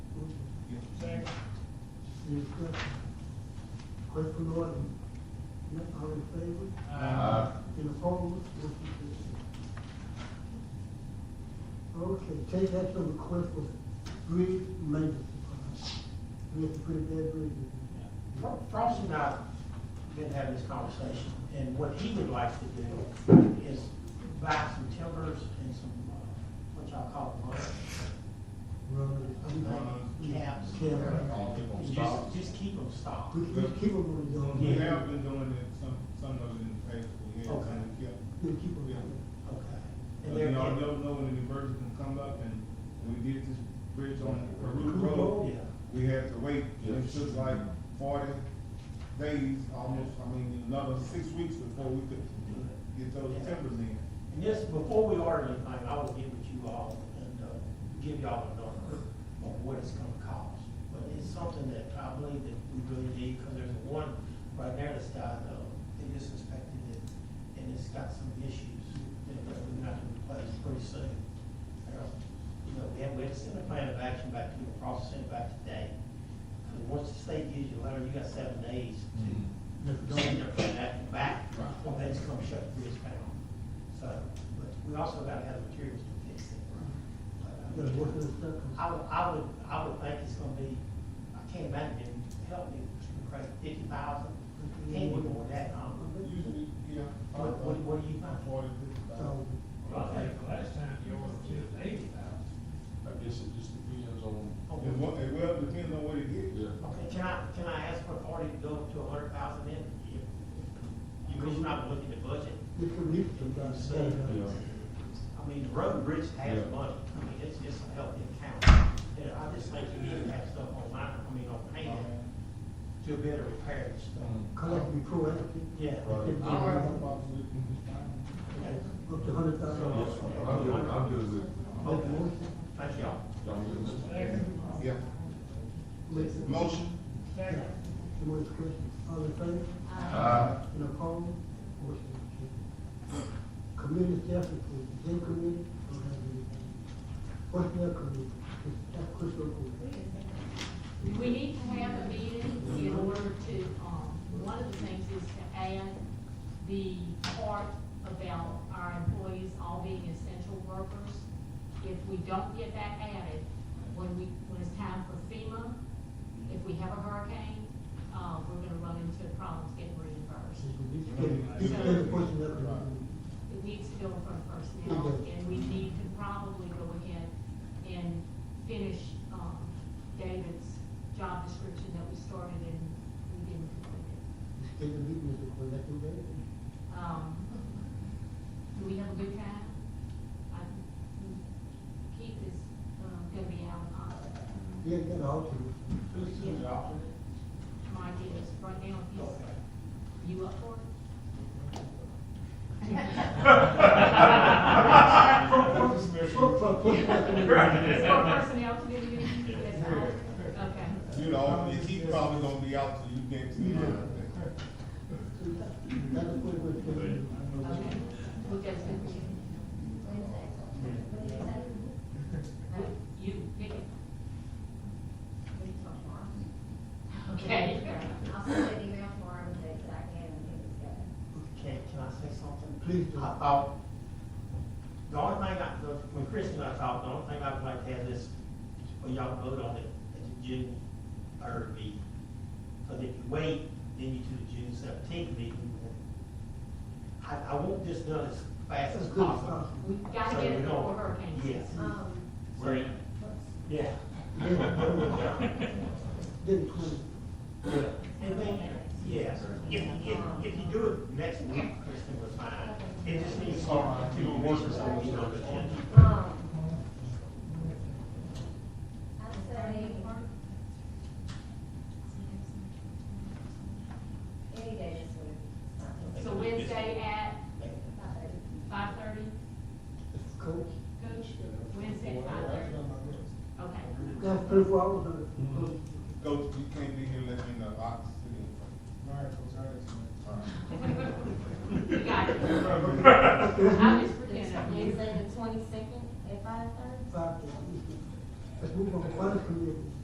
Any discussion? Question on the order? Not all in favor? Aye. Any opposed? Motion carries. Okay, take action on request for bridge maintenance. We have to put it there, bridge. Fro- Frost and I been having this conversation, and what he would like to do is buy some timbers and some, uh, what y'all call them, Run it. I'm uh, not- caps. Caps. And Just, just keep them stocked. We we keep them on the zone. We have been doing it, some, some of it in the past for years, Okay. and we kept. We keep them Yeah. on. Okay. But And you they're, know, you don't know when an emergency can come up, and we did this bridge on Peru Peru Road. Road. Yeah. We had to wait, and it took like forty days, almost, I mean, another six weeks before we could get those timbers in. and this, before we order anything, I will get with you all and, uh, give y'all a number on what it's gonna cost. But it's something that I believe that we really need, because there's one right there that's got, uh, they just inspected it, and it's got some issues that that we're gonna have to replace pretty soon. Uh, You know, we have, we have to send a plan of action back to the process, send it back today. Because once the state gives you a letter, you got seven days to send their plan act back, or they just come shut the bridge down. So, but we also gotta have materials to fix it. But, Gotta uh, work with the stuff. I would, I would, I would think it's gonna be, I can't imagine, help me, Craig, fifty thousand, can't be more than that, um, Usually, yeah. What- what- what do you think? Forty, fifty So, thousand. Well, I think the last time you ordered two eighty thousand. I guess it just depends on, okay. It wa- it well depends on what it is. yeah, Okay, can I, can I ask for Artie to go to a hundred thousand then? You- You're not looking at budget, we can leave them down there. yeah. I mean, the road and bridge has Yeah. money, I mean, it's, it's a healthy account. And I just think you need to have stuff on line, I mean, on hand, Um, to better repair and stuff. Collect, be proactive. Yeah. Mm. Right. I don't have no problem with it. Up to hundred thousand. I'm good, I'm good with, Make a motion. Thank y'all. I'm good with. Yeah. Make the- Motion? Any more discussion? All in favor? Aye. Any opposed? Motion is carried. Community effort, please. Same committee, don't have anything. Personnel committee, that's Crystal Court. We need to have a meeting in order to, um, one of the things is to add the part about our employees all being essential workers. If we don't get that added, when we, when it's time for FEMA, if we have a hurricane, uh, we're gonna run into problems getting reimbursed. This is the personnel committee. It needs to go in front of personnel, and we need to probably go ahead and finish, um, David's job description that we started and we didn't complete it. Take the meeting is a collective day. Um, do we have a good time? I- Keith is, um, gonna be out, uh, Yeah, you got all to. Who's, who's the alternate? Mike is, right now, Okay. he's, you up for it? For, for, personnel committee. It's for personnel committee, that's all, okay. You know, he's probably gonna be out till you get to. Yeah. That's what we're doing. Okay, who does it? No, You pick it. Okay. I'll send an email for him that I can and get it together. Can, can I say something? Please do. I thought, the only thing I, the- when Chris and I talked, the only thing I'd like to have is, for y'all to vote on it at the June third meeting. Because if you wait, then you do the June seventeenth meeting. I, I want this done as fast That's as good. possible. uh, We gotta So get we it before Uh, don't- hurricane Yes. season. Um, Right. what's- Yeah. Then twenty. And then, yeah, if, if, if you do it next week, Kristen, we're fine. It just needs to start to work on the agenda. um, I'd say any day this week. So Wednesday at Five thirty. five thirty, Coach, coach, Wednesday at five thirty, okay. that's thirty-four hours, uh, coach. Go, you can't be here, let me know, I'll sit in. You got it. I was forgetting. that. Wednesday the twenty-second at five thirty? Five, let's move on, finance committee.